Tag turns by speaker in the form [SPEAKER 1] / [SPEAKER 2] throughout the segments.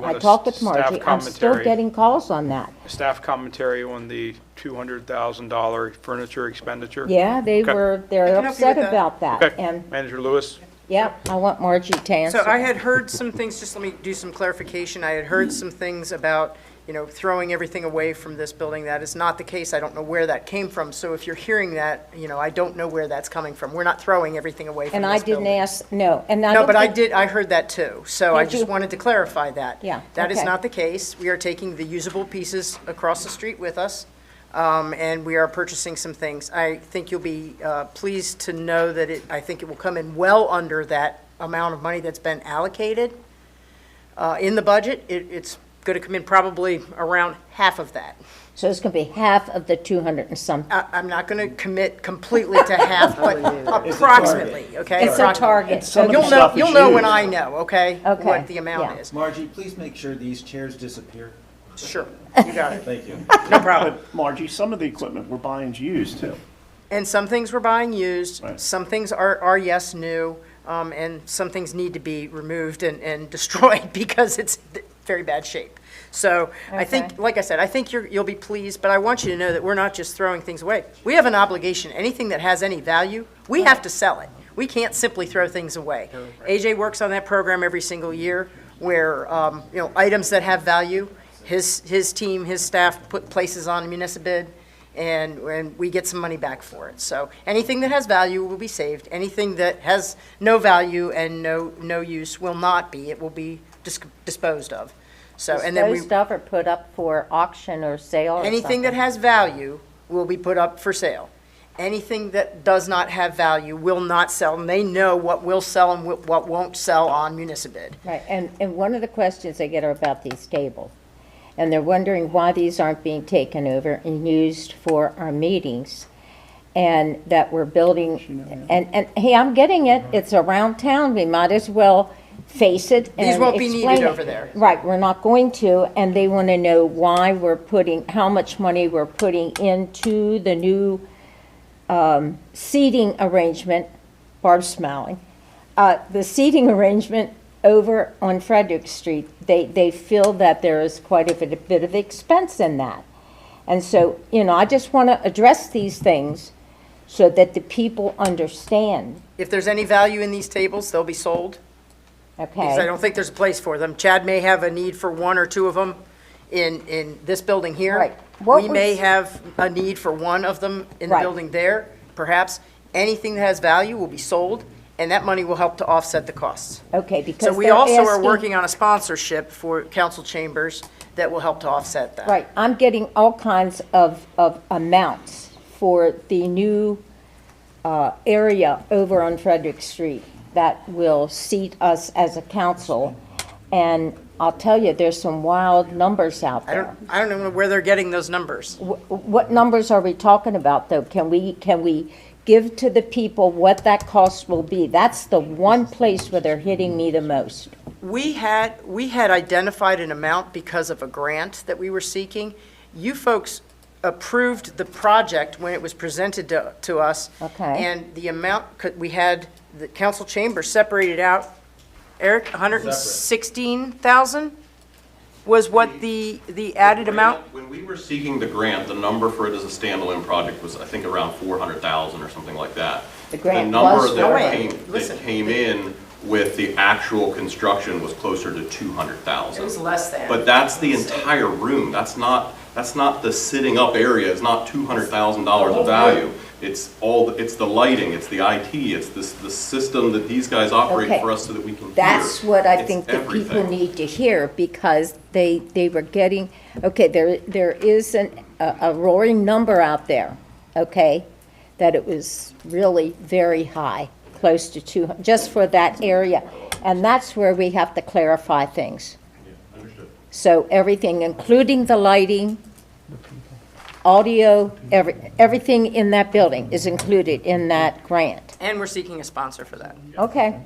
[SPEAKER 1] want
[SPEAKER 2] I
[SPEAKER 1] a
[SPEAKER 2] talked with
[SPEAKER 1] staff
[SPEAKER 2] Margie, I'm still
[SPEAKER 1] commentary-
[SPEAKER 2] getting calls on that.
[SPEAKER 1] Staff commentary on the $200,000 furniture expenditure?
[SPEAKER 2] Yeah, they
[SPEAKER 1] Okay.
[SPEAKER 2] were,
[SPEAKER 3] I
[SPEAKER 2] they're
[SPEAKER 3] can help you
[SPEAKER 2] upset
[SPEAKER 3] with that.
[SPEAKER 2] about that,
[SPEAKER 1] Okay,
[SPEAKER 2] and,
[SPEAKER 1] Manager Lewis?
[SPEAKER 2] yep, I want Margie to answer.
[SPEAKER 3] So I had heard some things, just let me do some clarification. I had heard some things about, you know, throwing everything away from this building. That is not the case. I don't know where that came from. So if you're hearing that, you know, I don't know where that's coming from. We're not throwing everything away from
[SPEAKER 2] And I
[SPEAKER 3] this
[SPEAKER 2] didn't
[SPEAKER 3] building.
[SPEAKER 2] ask, no, and I
[SPEAKER 3] No,
[SPEAKER 2] don't
[SPEAKER 3] but I
[SPEAKER 2] think-
[SPEAKER 3] did, I heard that too. So I
[SPEAKER 2] Did
[SPEAKER 3] just
[SPEAKER 2] you?
[SPEAKER 3] wanted to clarify that.
[SPEAKER 2] Yeah,
[SPEAKER 3] That is
[SPEAKER 2] okay.
[SPEAKER 3] not the case. We are taking the usable pieces across the street with us, um, and we are purchasing some things. I think you'll be uh, pleased to know that it, I think it will come in well under that amount of money that's been allocated uh, in the budget. It- It's going to come in probably around half of that.
[SPEAKER 2] So it's gonna be half of the two hundred and some,
[SPEAKER 3] I- I'm not going to commit completely to half, but approximately, okay?
[SPEAKER 2] it's a
[SPEAKER 3] Approximately.
[SPEAKER 2] target.
[SPEAKER 4] It's some of the
[SPEAKER 3] You'll know,
[SPEAKER 4] stuff
[SPEAKER 3] you'll
[SPEAKER 4] is
[SPEAKER 3] know
[SPEAKER 4] used.
[SPEAKER 3] when I know, okay?
[SPEAKER 2] Okay,
[SPEAKER 3] What the
[SPEAKER 2] yeah.
[SPEAKER 3] amount is.
[SPEAKER 4] Margie, please make sure these chairs disappear.
[SPEAKER 3] Sure, you got it,
[SPEAKER 4] Thank you.
[SPEAKER 3] no problem.
[SPEAKER 5] But Margie, some of the equipment we're buying's used too.
[SPEAKER 3] And some things we're buying used,
[SPEAKER 5] Right.
[SPEAKER 3] some things are, are yes, new, um, and some things need to be removed and, and destroyed because it's in very bad shape. So I think,
[SPEAKER 2] Okay.
[SPEAKER 3] like I said, I think you're, you'll be pleased, but I want you to know that we're not just throwing things away. We have an obligation, anything that has any value, we have to sell it. We can't simply throw things away. AJ works on that program every single year where, um, you know, items that have value, his, his team, his staff put places on municipal and, and we get some money back for it. So anything that has value will be saved. Anything that has no value and no, no use will not be. It will be dis- disposed of. So, and then we,
[SPEAKER 2] Disposed of or put up for auction or sale or
[SPEAKER 3] anything that
[SPEAKER 2] something.
[SPEAKER 3] has value will be put up for sale. Anything that does not have value will not sell, and they know what will sell and wh- what won't sell on municipal.
[SPEAKER 2] Right, and, and one of the questions I get are about these tables. And they're wondering why these aren't being taken over and used for our meetings. And that we're building, and, and, hey, I'm getting it, it's around town, we might as well face it and
[SPEAKER 3] These won't be needed
[SPEAKER 2] explain it.
[SPEAKER 3] over there.
[SPEAKER 2] Right, we're not going to, and they want to know why we're putting, how much money we're putting into the new um, seating arrangement, Barb's smiling, Uh, the seating arrangement over on Frederick Street. They, they feel that there is quite a bit, a bit of expense in that. And so, you know, I just want to address these things so that the people understand,
[SPEAKER 3] If there's any value in these tables, they'll be sold. because I
[SPEAKER 2] okay?
[SPEAKER 3] don't think there's a place for them. Chad may have a need for one or two of them in, in this building here.
[SPEAKER 2] Right. What
[SPEAKER 3] We may
[SPEAKER 2] was-
[SPEAKER 3] have a need for one of them in the
[SPEAKER 2] Right.
[SPEAKER 3] building there, perhaps. Anything that has value will be sold, and that money will help to offset the costs.
[SPEAKER 2] Okay, because
[SPEAKER 3] So we
[SPEAKER 2] they're
[SPEAKER 3] also are
[SPEAKER 2] asking-
[SPEAKER 3] working on a sponsorship for council chambers that will help to offset that.
[SPEAKER 2] Right, I'm getting all kinds of, of amounts for the new uh, area over on Frederick Street that will seat us as a council. And I'll tell you, there's some wild numbers out
[SPEAKER 3] I
[SPEAKER 2] there.
[SPEAKER 3] don't, I don't know where they're getting those numbers.
[SPEAKER 2] Wh- What numbers are we talking about, though? Can we, can we give to the people what that cost will be? That's the one place where they're hitting me the most.
[SPEAKER 3] We had, we had identified an amount because of a grant that we were seeking. You folks approved the project when it was presented to, to us.
[SPEAKER 2] Okay.
[SPEAKER 3] And the amount, could- we had the council chamber separated out, Eric, 116,000 was what the, the added amount?
[SPEAKER 6] When we were seeking the grant, the number for it as a standalone project was, I think, around 400,000 or something like that.
[SPEAKER 2] The grant was
[SPEAKER 6] number that
[SPEAKER 3] for it.
[SPEAKER 6] came-
[SPEAKER 3] Listen.
[SPEAKER 6] That came in with the actual construction was closer to 200,000.
[SPEAKER 3] It was less than.
[SPEAKER 6] But that's the entire room, that's not, that's not the sitting up area, it's not $200,000 of value. It's all, it's the lighting, it's the IT, it's this, the system that these guys
[SPEAKER 2] Okay.
[SPEAKER 6] operate for us so that we can hear.
[SPEAKER 2] That's what I
[SPEAKER 6] It's
[SPEAKER 2] think the people
[SPEAKER 6] everything.
[SPEAKER 2] need to hear, because they, they were getting, okay, there, there is an, a a roaring number out there, okay? That it was really very high, close to two, just for that area. And that's where we have to clarify things. So everything, including the lighting, audio, every, everything in that building is included in that grant.
[SPEAKER 3] And we're seeking a sponsor for that.
[SPEAKER 2] Okay,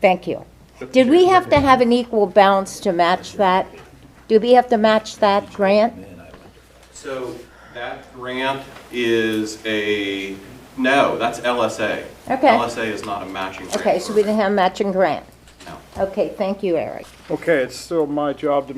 [SPEAKER 2] thank you. Did we have to have an equal balance to match that? Do we have to match that grant?
[SPEAKER 6] So that grant is a, no, that's LSA.
[SPEAKER 2] Okay.
[SPEAKER 6] LSA is not a matching grant.
[SPEAKER 2] Okay, so we didn't have a matching grant.
[SPEAKER 6] No.
[SPEAKER 2] Okay, thank you, Eric.
[SPEAKER 7] Okay, it's still my job to